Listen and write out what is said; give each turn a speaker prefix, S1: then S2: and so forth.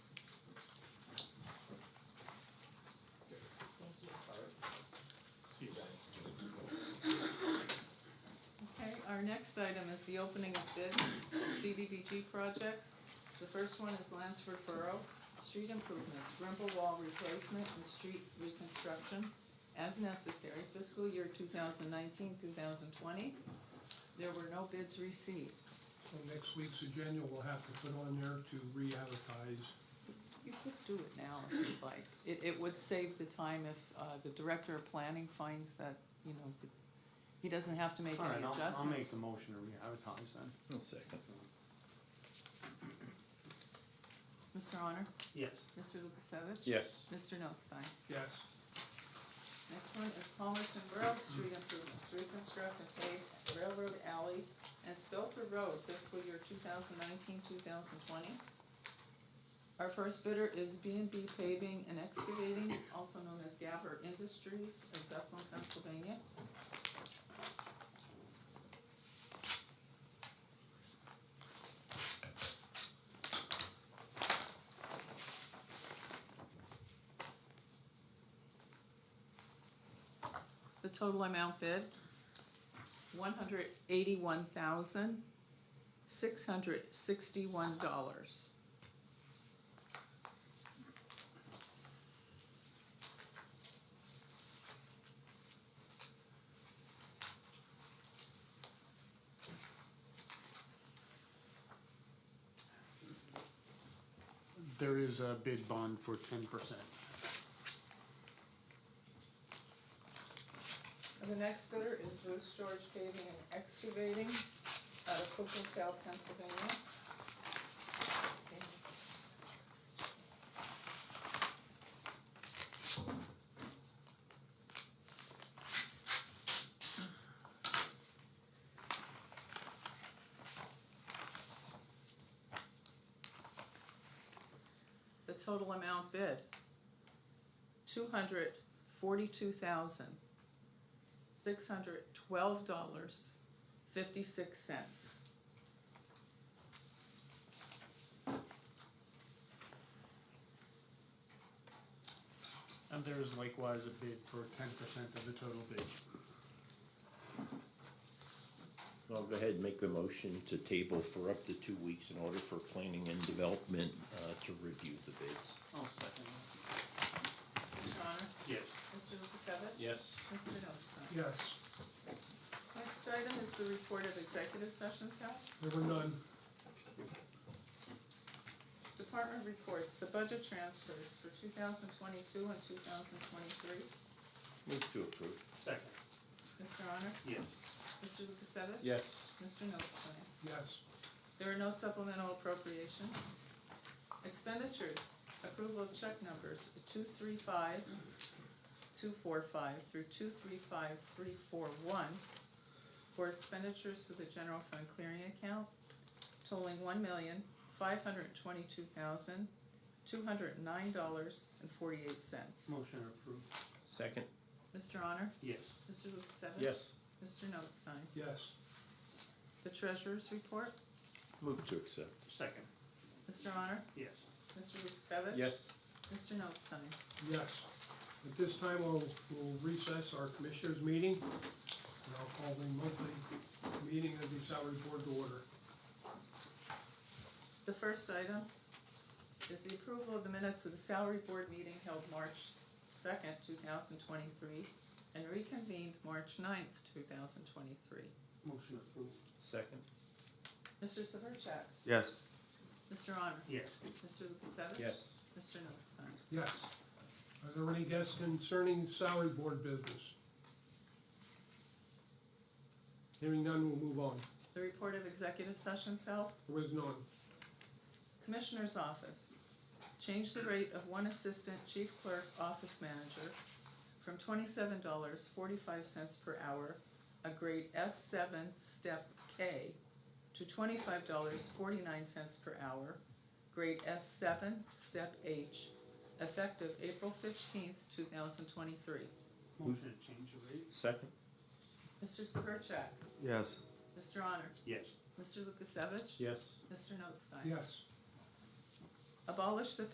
S1: next item is the opening of bids, CDBG projects. The first one is Lansford Borough, street improvements, Grimble Wall replacement and street reconstruction as necessary fiscal year 2019-2020. There were no bids received.
S2: On next week's agenda, we'll have to put on there to re-advertise.
S1: You could do it now if you'd like. It, it would save the time if, uh, the director of planning finds that, you know, it- he doesn't have to make
S3: All right,
S1: any
S3: I'll-
S1: adjustments.
S3: I'll make the motion to re-advertise then.
S4: I'll second.
S1: Mr. Honor?
S3: Yes.
S1: Mr. Lukasevich?
S4: Yes.
S1: Mr. Notstein?
S2: Yes,
S1: Next one is Palmerton Borough Street Improvements, reconstruct and pave Railroad Alley and Spelter Road fiscal year 2019-2020. Our first bidder is B and B Paving and Excavating, also known as Gabber Industries of Bethlehem, Pennsylvania. The total amount bid, one hundred eighty-one thousand, six hundred sixty-one dollars.
S5: There is a bid bond for ten percent.
S1: The next bidder is Bruce George Paving and Excavating out of Cookville, Pennsylvania. The total amount bid, two hundred forty-two thousand, six hundred twelve dollars fifty-six cents.
S5: And there is likewise a bid for ten percent of the total bid.
S4: I'll go ahead and make the motion to table for up to two weeks in order for planning and development uh, to review the bids.
S3: I'll Oh, second
S1: Mr. Honor?
S3: that. Yes.
S1: Mr. Lukasevich?
S4: Yes.
S1: Mr. Nostine?
S2: yes,
S1: Next item is the report of executive sessions held.
S2: there were none.
S1: Department reports, the budget transfers for two thousand twenty-two and two thousand twenty-three.
S4: Move to approve.
S3: Second.
S1: Mr. Honor?
S3: Yes.
S1: Mr. Lukasevich?
S4: Yes.
S1: Mr. Nostine?
S2: Yes,
S1: There are no supplemental appropriations. Expenditures, approval of check numbers two three five, two four five through two three five, three four one for expenditures to the general fund clearing account totaling one million, five hundred twenty-two thousand, two hundred nine dollars and forty-eight cents.
S3: Motion approved.
S4: Second.
S1: Mr. Honor?
S3: Yes.
S1: Mr. Lukasevich?
S4: Yes.
S1: Mr. Notstein?
S2: yes,
S1: The treasurer's report,
S4: Move to accept.
S3: Second.
S1: Mr. Honor?
S3: Yes.
S1: Mr. Lukasevich?
S4: Yes.
S1: Mr. Notstein?
S2: yes. At this time, we'll, we'll recess our commissioners' meeting. And I'll call the monthly meeting of the salary board to order.
S1: The first item is the approval of the minutes of the salary board meeting held March second, two thousand twenty-three, and reconvened March 9th, two thousand twenty-three.
S3: Motion approved.
S4: Second.
S1: Mr. Severcek?
S4: Yes.
S1: Mr. Honor?
S3: Yes.
S1: Mr. Lukasevich?
S4: Yes.
S1: Mr. Notstein?
S2: Yes. Are there any guests concerning salary board business? Hearing none, we'll move on.
S1: The report of executive sessions held,
S2: There was none.
S1: Commissioner's Office, change the rate of one assistant chief clerk office manager from twenty-seven dollars forty-five cents per hour, a grade S seven, step K, to twenty-five dollars forty-nine cents per hour, grade S seven, step H, effective April fifteenth, two thousand twenty-three.
S3: Motion to change the rate.
S4: Second.
S1: Mr. Severcek,
S4: Yes.
S1: Mr. Honor,
S3: Yes.
S1: Mr. Lukasevich,
S4: Yes.
S1: Mr. Notstein.
S2: Yes.
S1: Abolish the